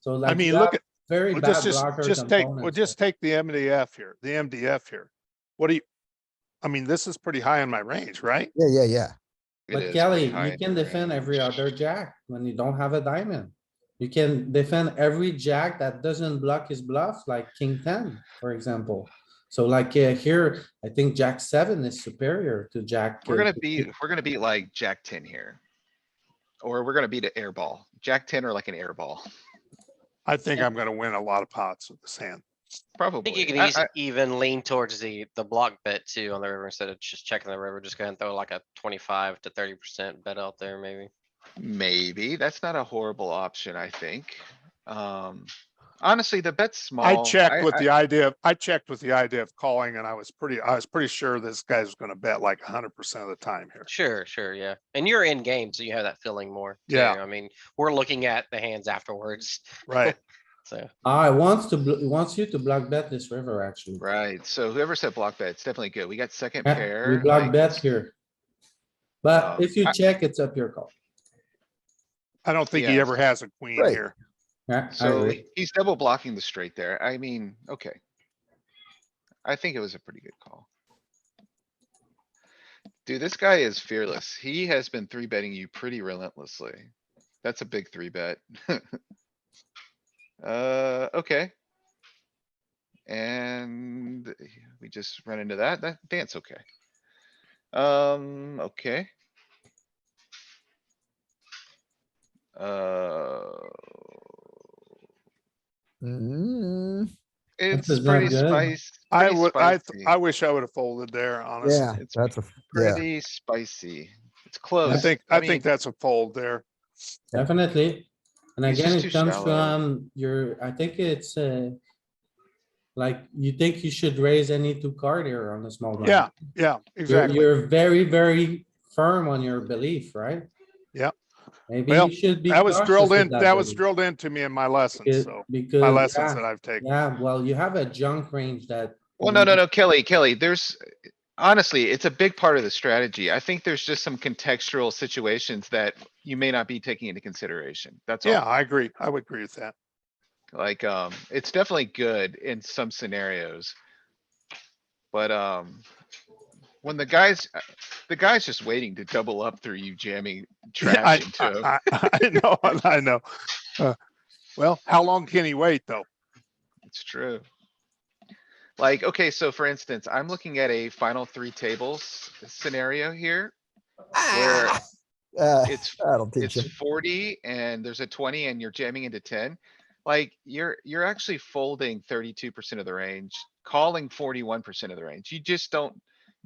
So like. I mean, you look have at, Very well, bad just, just, blocker just take, well, components. just take the MDF here, the MDF here. What do you, I mean, this is pretty high in my range, right? Yeah, yeah, yeah. It is But pretty Kelly, high you in can the defend range. every other jack when you don't have a diamond. You can defend every jack that doesn't block his bluff, like king ten, for example. So like yeah, here, I think jack seven is superior to jack. We're uh, gonna be, we're gonna be like Jack ten here. Or we're gonna beat an air ball. Jack ten or like an air ball, I think I'm gonna win a lot of pots with this hand. I think probably. you can I- eas- I- even lean towards the, the block bet too on the river instead of just checking the river, just go ahead and throw like a twenty-five to thirty percent bet out there maybe. Maybe, that's not a horrible option, I think. Um, honestly, the bet's small. I checked with I- the idea, of- I checked with the idea of calling and I was pretty, I was pretty sure this guy's gonna bet like hundred percent of the time here. Sure, sure, yeah. And you're in game, so you have that feeling more. too. Yeah. I mean, we're looking at the hands afterwards, Right, so. Ah, it wants to, bl- it wants you to block bet this river, actually. Right, so whoever said block bet, it's definitely good. We got second Yeah, pair. We block like, bet here. But Um, if you I- check, it's up your call. I don't think he Yeah. ever has a queen Right. here. Yeah, I So agree. he's double blocking the straight there. I mean, okay. I think it was a pretty good call. Dude, this guy is fearless. He has been three betting you pretty relentlessly. That's a big three bet. Uh, okay. And we just run into that. That dance, okay. Um, okay. Uh. Mm, It's is not pretty good. spicy. I would, I, th- I wish I would have folded there, honestly. yeah, it's that's a, yeah, Pretty spicy. It's I close. think, I mean, think that's a fold there. Definitely. And He's again, just it too comes shallow. from your, I think it's uh. Like you think you should raise any two card here on the small blind. Yeah, yeah, You're- exactly. You're very, very firm on your belief, right? Yep. Maybe Well, you should be. That was cautious drilled with in, that was belief. drilled into me in my lesson, Because- so, Because. my lessons Uh, yeah, that I've taken. Yeah, well, you have a junk range that. Well, no, no, no, Kelly, Kelly, there's, honestly, it's a big part of the strategy. I think there's just some contextual situations that you may not be taking into consideration. That's Yeah, all. I agree. I would agree with that. Like, um, it's definitely good in some scenarios. But, um, when the guys, uh, the guy's just waiting to double up through you jamming I, trash into him. I, I- I know, I know. Uh, Well, how long can he wait, though? It's true. Like, okay, so for instance, I'm looking at a final three tables scenario here where uh, it's, that'll teach you. it's forty and there's a twenty and you're jamming into ten. Like, you're, you're actually folding thirty-two percent of the range, calling forty-one percent of the range. You just don't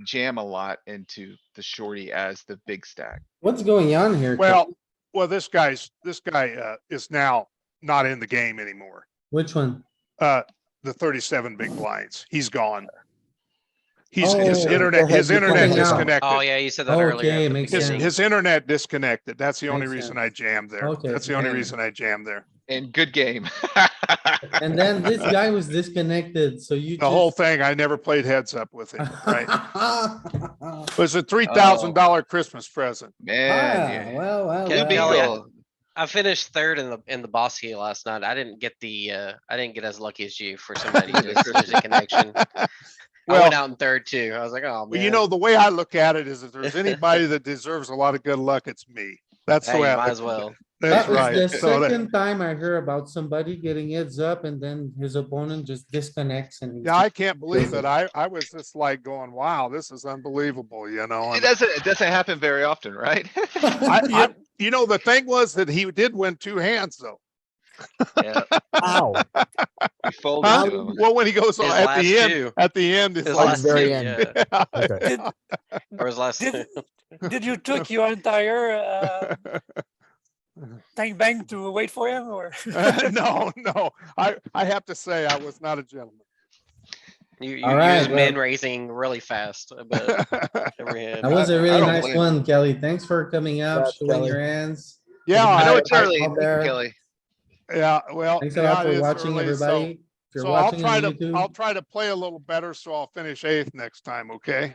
jam a lot into the shorty as the big stack. What's going on here? Ken? Well, well, this guy's, this guy, uh, is now not in the game anymore. Which one? Uh, the thirty-seven big blinds, he's gone. He's, his Oh, internet, okay, his you're internet coming out. Oh, disconnected. yeah, you said that earlier. Okay, at the makes His, sense. beginning. his internet disconnected. That's the only Makes reason sense. I jammed there. Okay, That's the only okay. reason I jammed there. And good game. And then this guy was disconnected, so you. The whole thing, I never played heads up with him, right? Ah, right? It Oh. was a three thousand dollar Christmas present. Man, Ah, yeah. well, well, Good Kelly, well. yeah. deal. I finished third in the, in the boss heat last night. I didn't get the, uh, I didn't get as lucky as you for somebody The just losing connection. I Well- went out in third too. I was like, oh, Well, man. you know, the way I look at it is if there's anybody that deserves a lot of good luck, it's me. That's the Hey, way. I might look as at well. it. That's That was right. The So that, second time I hear about somebody getting heads up and then his opponent just disconnects and. yeah, I can't believe it. I, I was just like going, wow, this is unbelievable, you know? It and doesn't, it doesn't happen very often, right? I, I, you know, the thing was that he did win two hands though. Yeah, Ow, we fold Huh? into 'em. Well, when he goes His at last the end, two. at the end, it's His like, last very two, end. yeah. okay, Did, Or his last two. did, did you took your entire uh, tank bank to wait for him or? no, no, I, I have to say, I was not a gentleman. You, you, All you right, was well- min raising really fast, but every hand. That was a I really don't nice blame one, Kelly. Thanks for coming out, Congrats, showing Kelly. your hands. Yeah, I I know know I, it's I- early, I'm there. Kelly. yeah, well. Thanks a Oh, yeah, lot it for is watching, early, so- everybody. If you're So I'll watching try on to, I'll YouTube, try to play a little better, so I'll finish eighth next time, okay?